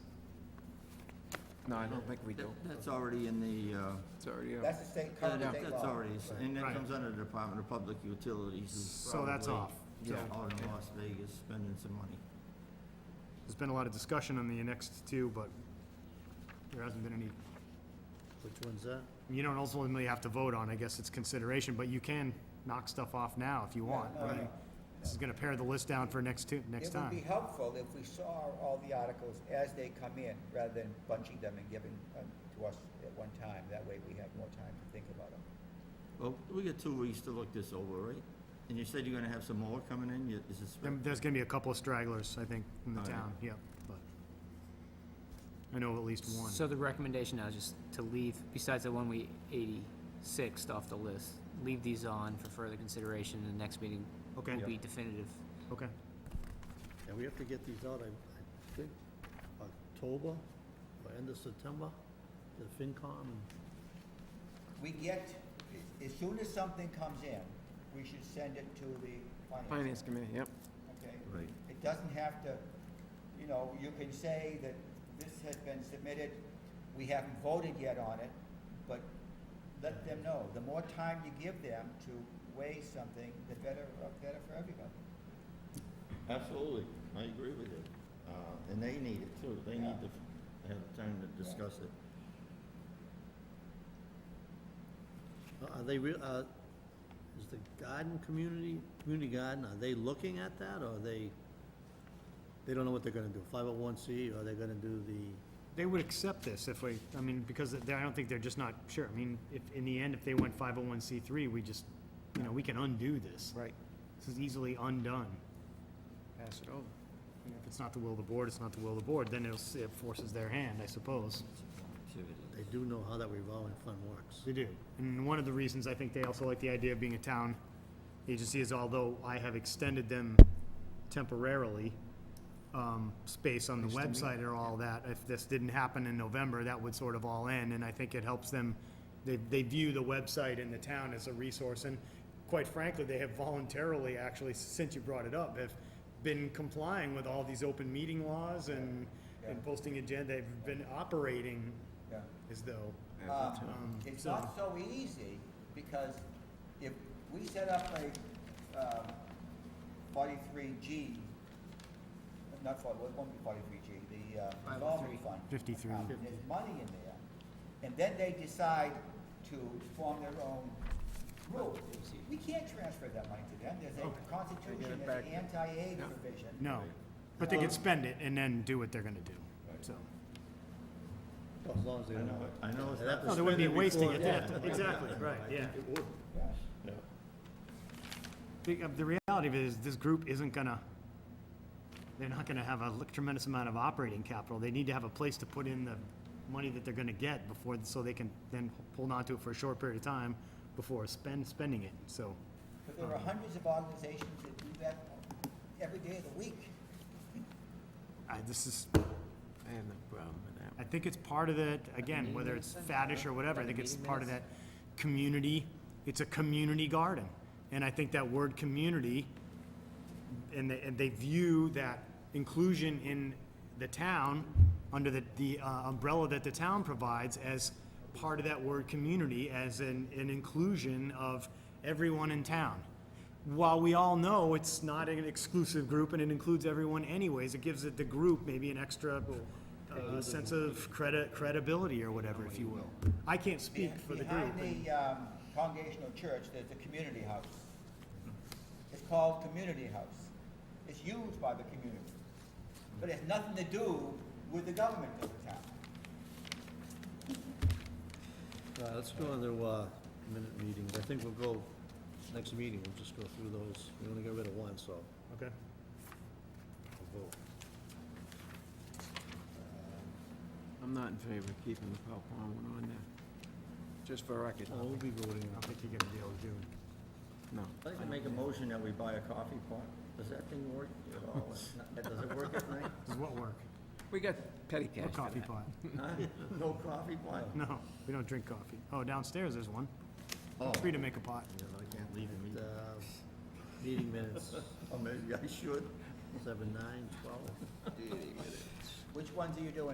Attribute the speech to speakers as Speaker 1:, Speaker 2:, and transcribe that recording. Speaker 1: No, I don't think we do.
Speaker 2: That- That's already in the, uh,
Speaker 1: It's already, uh,
Speaker 3: That's the state, current
Speaker 2: that-
Speaker 3: state
Speaker 2: that's
Speaker 3: law.
Speaker 2: already, and that
Speaker 4: Right.
Speaker 2: comes under the Department of Public Utilities. who's
Speaker 4: So that's
Speaker 2: probably-
Speaker 4: off.
Speaker 2: Yeah,
Speaker 4: So-
Speaker 2: out in Las Vegas, spending some money.
Speaker 4: There's been a lot of discussion on the next two, but there hasn't been any,
Speaker 5: Which one's that?
Speaker 4: you don't ultimately have to vote on, I guess it's consideration, but you can knock stuff off now if you want.
Speaker 3: no,
Speaker 4: I mean,
Speaker 3: no.
Speaker 4: This is gonna pare the list down for next two, next
Speaker 3: It would be
Speaker 4: time.
Speaker 3: helpful if we saw all the articles as they come in, rather than bunching them and giving them to us at one time. That way we have more time to think about them.
Speaker 2: Well, we got two weeks to look this over, right? And you said you're gonna have some more coming in, you- is this?
Speaker 4: There- There's gonna be a couple of stragglers, I think, in the
Speaker 2: All right.
Speaker 4: town, yep, but. I know of at least one.
Speaker 6: So the recommendation now is just to leave, besides the one we eighty-sixth off the list, leave these on for further consideration, and the next meeting
Speaker 4: Okay.
Speaker 6: will be definitive.
Speaker 4: Okay,
Speaker 5: Yeah, we have to get these out, I I think, October, or end of September, the FinCom.
Speaker 3: We get, as soon as something comes in, we should send it to the finance.
Speaker 1: Finance Committee, yep.
Speaker 3: Okay?
Speaker 2: Right.
Speaker 3: It doesn't have to, you know, you can say that this has been submitted, we haven't voted yet on it, but let them know. The more time you give them to weigh something, the better, uh, better for everybody.
Speaker 2: Absolutely, I agree with you. Uh, And they need it too, they need to f- have time to discuss it.
Speaker 5: Uh, Are they, re- uh, is the garden community, community garden, are they looking at that, or are they, they don't know what they're gonna do, 501C, or are they gonna do the,
Speaker 4: they would accept this if we, I mean, because they- I don't think they're just not sure, I mean, if, in the end, if they went five oh one C three, we just, you know, we can undo this.
Speaker 1: Right.
Speaker 4: This is easily undone.
Speaker 1: Pass it over.
Speaker 4: And If it's not the will of the board, it's not the will of the board, then it'll, s- it forces their hand, I suppose.
Speaker 5: they do know how that revolving fund works?
Speaker 4: They do. And one of the reasons I think they also like the idea of being a town agency is although I have extended them temporarily, um, space on the website or all that, if this didn't happen in November, that would sort of all end, and I think it helps them, they, they view the website and the town as a resource, and quite frankly, they have voluntarily, actually, since you brought it up, have been complying with all these open meeting laws and, and posting agenda, they've been operating
Speaker 3: Yeah.
Speaker 4: as though,
Speaker 3: Um,
Speaker 4: Um,
Speaker 3: It's
Speaker 4: so-
Speaker 3: not so easy, because if we set up a um, forty-three G, not forty, it won't be forty-three G, the uh, revolving fund.
Speaker 4: 53.
Speaker 3: account, and There's money in there, and then they decide to form their own rules. We can't transfer that money to them, there's a constitution, there's an anti-aid provision.
Speaker 4: No, but they could spend it and then do what they're gonna do, so.
Speaker 5: Well, As long as they
Speaker 2: I
Speaker 5: don't
Speaker 2: know,
Speaker 5: know.
Speaker 2: it- I know. it's not
Speaker 4: No,
Speaker 2: the
Speaker 4: they wouldn't be
Speaker 2: spending
Speaker 4: wasting
Speaker 2: before-
Speaker 4: it,
Speaker 2: Yeah.
Speaker 4: exactly, right, yeah.
Speaker 3: Yeah.
Speaker 2: Yeah.
Speaker 4: The, uh, the reality of it is, this group isn't gonna, they're not gonna have a l- tremendous amount of operating capital. They need to have a place to put in the money that they're gonna get before, so they can then hold on to it for a short period of time before spend, spending it, so.
Speaker 3: But there are hundreds of organizations that do that every day of the week.
Speaker 4: I, this is,
Speaker 1: I have no problem with that.
Speaker 4: I think it's part of that, again,
Speaker 6: meeting
Speaker 4: whether it's
Speaker 6: minutes then?
Speaker 4: faddish or whatever, I
Speaker 6: Like
Speaker 4: think it's
Speaker 6: meeting
Speaker 4: part of that community, it's a community garden. And I think that word community, and they, and they view that inclusion in the town, under the, the uh, umbrella that the town provides as part of that word community, as an, an inclusion of everyone in town. While we all know it's not an exclusive group and it includes everyone anyways, it gives it the group maybe an extra uh, sense of credit, credibility or whatever, if you will. I can't speak for the group.
Speaker 3: Behind
Speaker 4: and-
Speaker 3: the um, Congregational Church, there's a community house. It's called Community House. It's used by the community, but it has nothing to do with the government of the town.
Speaker 5: All right, let's go on to, uh, minute meetings, I think we'll go, next meeting, we'll just go through those, we only got rid of one, so.
Speaker 4: Okay.
Speaker 5: we'll vote.
Speaker 2: Uh,
Speaker 1: I'm not in favor of keeping the Palpon one on there. Just for record,
Speaker 5: Uh,
Speaker 4: Oh.
Speaker 5: Well, we'll be voting
Speaker 4: I don't think you're gonna be able to do it.
Speaker 1: no.
Speaker 2: I'd like to make a motion that we buy a coffee pot. Does that thing work at all? It's not- Does it work at night?
Speaker 4: Does what work?
Speaker 1: We got petty cash
Speaker 4: What
Speaker 1: for
Speaker 4: coffee
Speaker 1: that.
Speaker 4: pot?
Speaker 2: Huh? No coffee pot?
Speaker 4: No, we don't drink coffee. Oh, downstairs there's one.
Speaker 2: Oh.
Speaker 4: Free to make a pot.
Speaker 2: Yeah, I can't leave him.
Speaker 5: Uh, meeting minutes,
Speaker 2: Oh, maybe I should.
Speaker 5: seven, nine, twelve.
Speaker 3: Which ones are you doing?